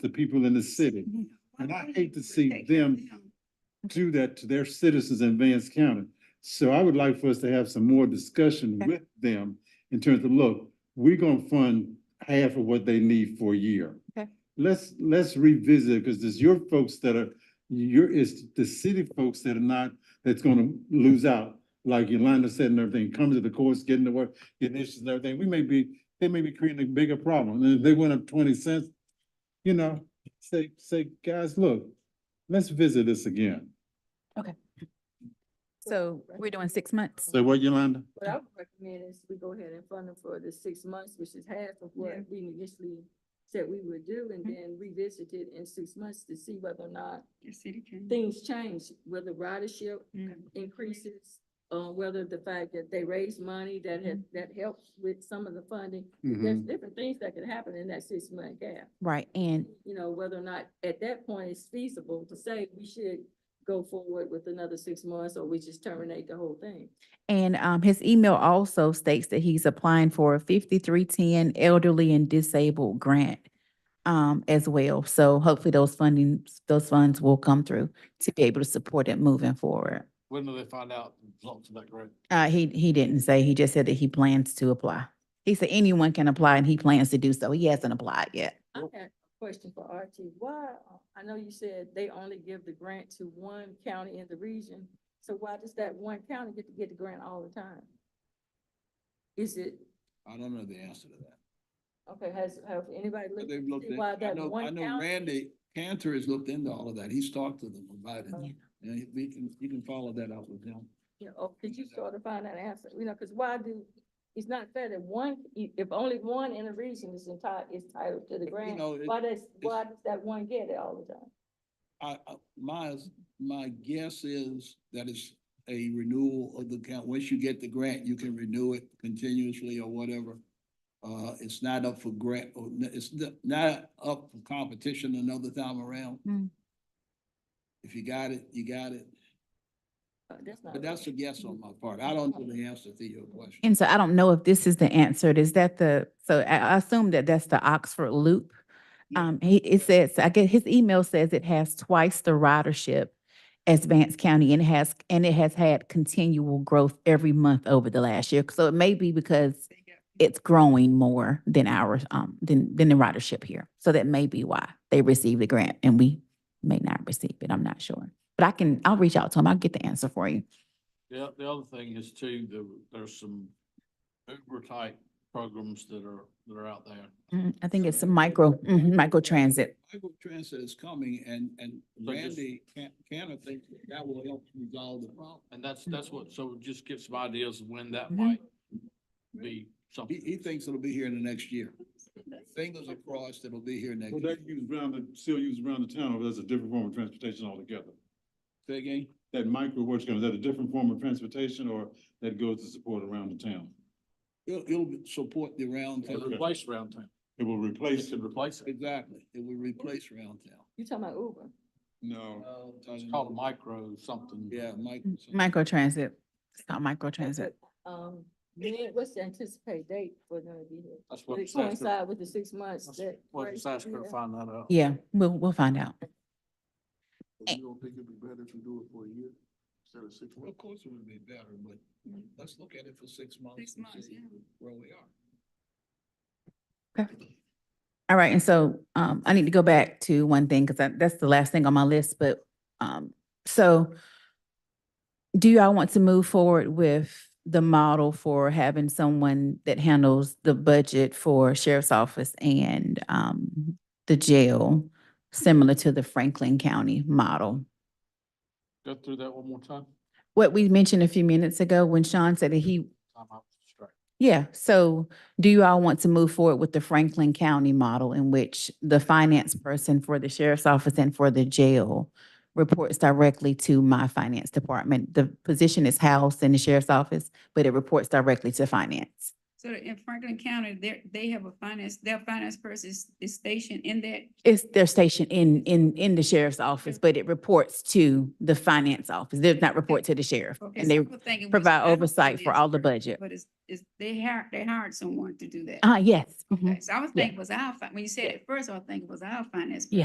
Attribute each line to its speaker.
Speaker 1: the people in the city. And I hate to see them do that to their citizens in Vance County. So I would like for us to have some more discussion
Speaker 2: Okay.
Speaker 1: with them in terms of, look, we're gonna fund half of what they need for a year.
Speaker 2: Okay.
Speaker 1: Let's, let's revisit, because it's your folks that are, your, it's the city folks that are not, that's gonna lose out. Like Yolanda said and everything, coming to the courts, getting to work, getting issues and everything, we may be, they may be creating a bigger problem. And if they went up twenty cents, you know, say, say, guys, look, let's visit this again.
Speaker 2: So we're doing six months.
Speaker 1: Say what, Yolanda?
Speaker 3: What I would recommend is we go ahead and fund them for the six months, which is half of what
Speaker 2: Yeah.
Speaker 3: we initially said we would do, and
Speaker 2: Mhm.
Speaker 3: then revisit it in six months to see whether or not
Speaker 2: Your city
Speaker 3: things change, whether ridership increases, uh, whether the fact that they raise money that has, that helps with some of the funding.
Speaker 1: Mm-hmm.
Speaker 3: There's different things that can happen in that six month gap.
Speaker 2: Right, and
Speaker 3: You know, whether or not at that point it's feasible to say we should go forward with another six months, or we just terminate the whole thing.
Speaker 2: And um, his email also states that he's applying for a fifty-three ten elderly and disabled grant um, as well. So hopefully those funding, those funds will come through to be able to support it moving forward.
Speaker 4: When will they find out the results of that grant?
Speaker 2: Uh, he, he didn't say, he just said that he plans to apply. He said anyone can apply and he plans to do so. He hasn't applied yet.
Speaker 3: I had a question for RT. Why, uh, I know you said they only give the grant to one county in the region. So why does that one county get to get the grant all the time? Is it,
Speaker 4: I don't know the answer to that.
Speaker 3: okay, has, have anybody
Speaker 4: But
Speaker 3: looked?
Speaker 4: they've looked,
Speaker 3: See
Speaker 4: in-
Speaker 3: why
Speaker 4: I
Speaker 3: that
Speaker 4: know,
Speaker 3: one
Speaker 4: I know
Speaker 3: county-
Speaker 4: Randy Cantor has looked into all of that. He's talked to them about it.
Speaker 3: Yeah.
Speaker 4: And he- we can, you can follow that up with him.
Speaker 3: You know, or could you sort of find that answer? You know, because why do, it's not fair that one, i- if only one in the region is entitled, is titled to the grant.
Speaker 4: know, it-
Speaker 3: Why does, why does that one get it all the time?
Speaker 4: I, I, my, my guess is that it's a renewal of the count. Once you get the grant, you can renew it continuously or whatever. Uh, it's not up for grant, or n- it's n- not up for competition another time around.
Speaker 2: Hmm.
Speaker 4: If you got it, you got it.
Speaker 3: Uh, That's not.
Speaker 4: But that's a
Speaker 3: fair.
Speaker 4: guess on my part. I don't know the answer to your question.
Speaker 2: And so I don't know if this is the answer. Is that the, so I, I assume that that's the Oxford Loop.
Speaker 4: Yeah.
Speaker 2: Um, he, it says, I get, his email says it has twice the ridership as Vance County and it has, and it has had continual growth every month over the last year. So it may be because it's growing more than our, um, than, than the ridership here. So that may be why they received the grant and we may not receive it. I'm not sure. But I can, I'll reach out to him. I'll get the answer for you.
Speaker 5: The, o- the other thing is too, there, there's some Uber type programs that are, that are out there.
Speaker 2: Mm, I think it's a micro, mhm, micro transit.
Speaker 4: Micro transit is coming and, and
Speaker 5: So just-
Speaker 4: Randy Can- Cantor thinks that that will help resolve the problem.
Speaker 5: And that's, that's what, so just get some ideas of when that
Speaker 2: Mhm.
Speaker 5: might be something.
Speaker 4: He, he thinks it'll be here in the next year. Fingers are crossed, it'll be here next
Speaker 1: Well,
Speaker 4: year.
Speaker 1: that used around the, still used around the town, but that's a different form of transportation altogether.
Speaker 4: Say again?
Speaker 1: That micro works, is that a different form of transportation or that goes to support around the town?
Speaker 4: It'll, it'll support the round
Speaker 5: It'll
Speaker 4: town.
Speaker 5: Replace round town.
Speaker 1: It will
Speaker 5: It
Speaker 1: replace,
Speaker 5: could replace it.
Speaker 4: Exactly. It will replace round town.
Speaker 3: You talking about Uber?
Speaker 1: no,
Speaker 5: It's called a micro something.
Speaker 4: Yeah, Mike.
Speaker 2: Micro transit. It's called micro
Speaker 3: Okay,
Speaker 2: transit.
Speaker 3: but, Um, when, what's the anticipated date for them to be here?
Speaker 5: That's what
Speaker 3: Would it
Speaker 5: it's asking.
Speaker 3: coincide with the six months that?
Speaker 5: Well, it's asking to
Speaker 3: Yeah.
Speaker 5: find that out.
Speaker 2: Yeah, we'll, we'll find out.
Speaker 4: You don't think it'd be better to do it for a year instead of six months? Of course it would be better, but let's look at it for six months.
Speaker 3: Six
Speaker 4: and
Speaker 3: months,
Speaker 4: see
Speaker 3: yeah.
Speaker 4: Where we are.
Speaker 2: All right, and so, um, I need to go back to one thing, because that's the last thing on my list, but, um, so do y'all want to move forward with the model for having someone that handles the budget for sheriff's office and, um, the jail, similar to the Franklin County model?
Speaker 5: Go through that one more time.
Speaker 2: What we mentioned a few minutes ago when Sean said that he
Speaker 5: Time out straight.
Speaker 2: Yeah, so do you all want to move forward with the Franklin County model in which the finance person for the sheriff's office and for the jail reports directly to my finance department? The position is housed in the sheriff's office, but it reports directly to finance.
Speaker 6: So in Franklin County, they they have a finance, their finance person is is stationed in that
Speaker 2: It's, they're stationed in, in, in the sheriff's office, but it reports to the finance office. Does not report to the sheriff.
Speaker 6: Okay,
Speaker 2: And
Speaker 6: so
Speaker 2: they,
Speaker 6: I was thinking we
Speaker 2: provide
Speaker 6: should have
Speaker 2: oversight
Speaker 6: an
Speaker 2: for all the
Speaker 6: expert,
Speaker 2: budget.
Speaker 6: But it's, it's, they hired, they hired someone to do that.
Speaker 2: ah, yes. mhm.
Speaker 6: Mm-hmm. Okay, So I was thinking it was our, fi- when you said it first, I was thinking it was our finance.
Speaker 2: Yeah.